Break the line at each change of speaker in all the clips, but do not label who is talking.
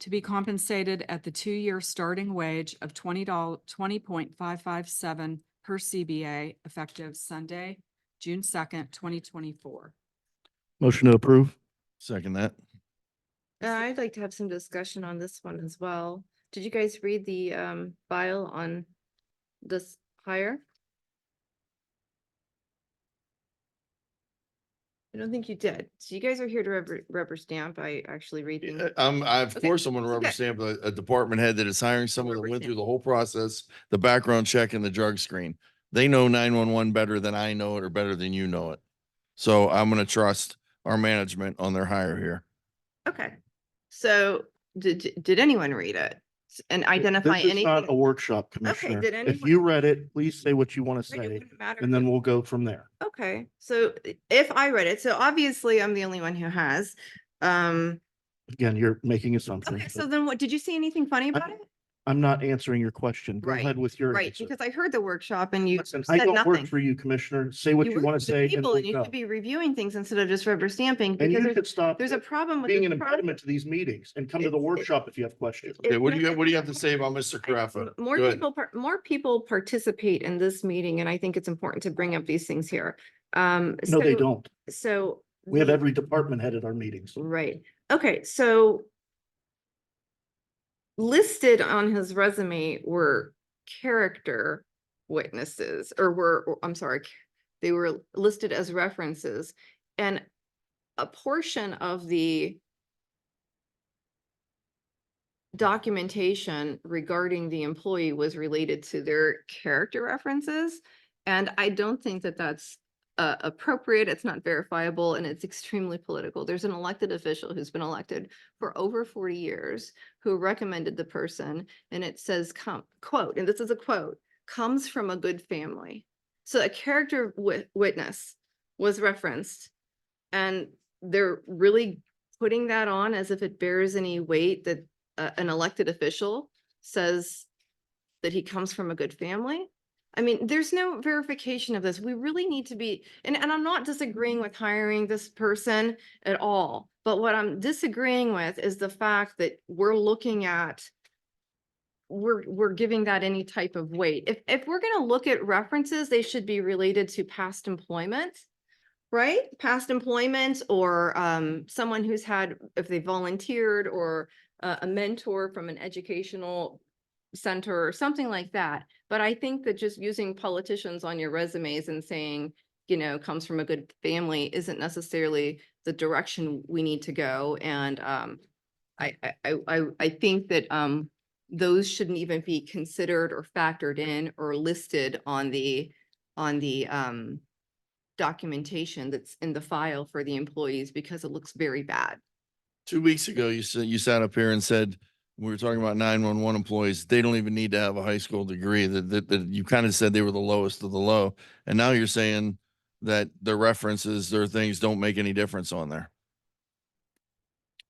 to be compensated at the two-year starting wage of twenty dollars twenty point five five seven per CBA effective Sunday, June second, twenty twenty-four.
Motion to approve. Second that.
Uh, I'd like to have some discussion on this one as well. Did you guys read the um file on this hire? I don't think you did. So you guys are here to rubber, rubber stamp. I actually read
Yeah,
things.
uh, um,
I'm, I, of
Okay,
course, I'm gonna rubber
okay.
stamp a, a department head that is hiring someone that
Rubber
went through
stamp.
the whole process, the background check and the drug screen. They know nine one one better than I know it or better than you know it. So I'm gonna trust our management on their hire here.
Okay. So did, did- did anyone read it S- and identify
This is
anything?
not a workshop, Commissioner.
did
If
anyone-
you read it, please say what you want to
But it
say,
wouldn't matter
and
if-
then we'll go from there.
Okay, so i- if I read it, so obviously I'm the only one who has. Um,
Again, you're making assumptions.
okay,
but
so then what, did you see anything funny about it?
I'm not answering your question. Go
Right,
ahead with your
Right,
answer.
because I heard the workshop and you
Listen,
said
I don't work
nothing.
for you, Commissioner. Say what you
work
want
for
to
the
say and
people
we'll
You
go.
should be reviewing things instead of just rubber stamping
And
because
you
there's,
could stop
there's a problem with.
being an
this pro-
impediment to these meetings and come to the
It's- it-
workshop if you have questions.
It-
Okay, what do you,
never-
what do you have to say about Mr. Carafa?
More
Go ahead.
people, par- more people participate in this meeting and I think it's important to bring up these things here. Um,
No, they
so-
don't.
So.
We have
the-
every department head at our meetings.
Right, okay, so listed on his resume were character witnesses, or were, or- I'm sorry, c- they were listed as references, and a portion of the documentation regarding the employee was related to their character references, and I don't think that that's uh, appropriate, it's not verifiable, and it's extremely political. There's an elected official who's been elected for over forty years who recommended the person, and it says, come, quote, and this is a quote, comes from a good family. So a character wit- witness was referenced, and they're really putting that on as if it bears any weight that uh, an elected official says that he comes from a good family. I mean, there's no verification of this. We really need to be, and, and I'm not disagreeing with hiring this person at all. But what I'm disagreeing with is the fact that we're looking at, we're, we're giving that any type of weight. If, if we're gonna look at references, they should be related to past employment, right? Past employment or, um, someone who's had, if they volunteered or uh, a mentor from an educational center or something like that. But I think that just using politicians on your resumes and saying, you know, comes from a good family isn't necessarily the direction we need to go. And um, I, I, I- I, I think that um, those shouldn't even be considered or factored in or listed on the, on the um, documentation that's in the file for the employees because it looks very bad.
Two weeks ago, you said, you sat up here and said, we were talking about nine one one employees. They don't even need to have a high school degree that, that, that you kind of said they were the lowest of the low. And now you're saying that their references, their things don't make any difference on there.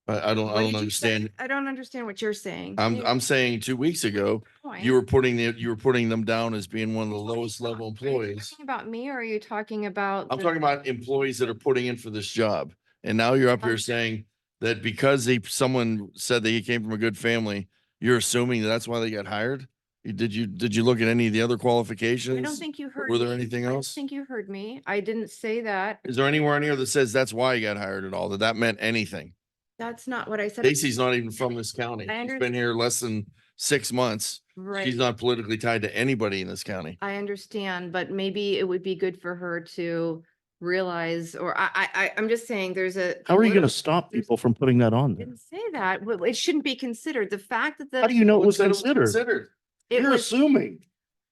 I, I don't,
What
I don't
did you say?
understand.
I don't understand what you're saying.
I'm,
You-
I'm saying two weeks ago,
Point.
you were putting the, you were putting them down as being one of the
Are you
lowest level
talk- are you
employees.
talking About me or are you talking about?
I'm
the-
talking about employees that are putting in for this job. And now you're up here
Um,
saying that because he, someone said that he came from a good family, you're assuming that that's why they got hired? You- Did you, did you look at any of the other qualifications?
I don't think you heard.
were there
me.
anything
I don't
else?
Think you heard me. I didn't say that.
Is there anywhere in here that says that's why he got hired at all? That that meant anything?
That's not what I said.
Stacy's not even from this county.
I
She's
under-
been here less than six months.
Right.
She's not politically tied to anybody in this county.
I understand, but maybe it would be good for her to realize, or I, I, I, I'm just saying there's a.
How are you going
political-
to stop people from putting that on
I
there?
Didn't say that. Well, it shouldn't be considered. The fact that the.
How do you know it was
What's that
considered?
Considered.
it
You're
was-
assuming.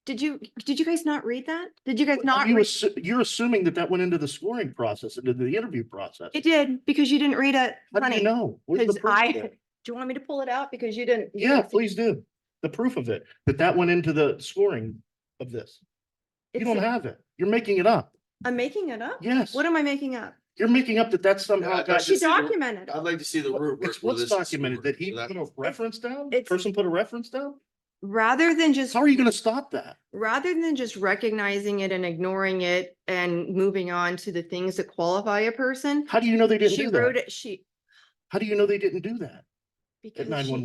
Did you, did you guys not read that? Did you guys not?
You
read-
assu- you're assuming that that went into the scoring process, into the interview process.
It did, because you didn't read it.
How do
Honey,
you know? Where's the
'cause
proof
I-
of it?
Do you want me to pull it out? Because you didn't. you
Yeah,
didn't see-
please do. The proof of it, that that went into the scoring of this. You
It's-
don't have it. You're making it up.
I'm making it up?
Yes.
What am I making up?
You're making up that that somehow
Yeah,
got.
it's
She
just-
documented.
Uh,
I'd like to see the root.
It's what's documented, that he put a reference down?
It's-
Person put a reference down?
Rather than just,
How are you going to stop that?
rather than just recognizing it and ignoring it and moving on to the things that qualify a person,
How do you know they didn't
she
do
wrote
that?
it, she.
How do you know they didn't do that?
because she-
911.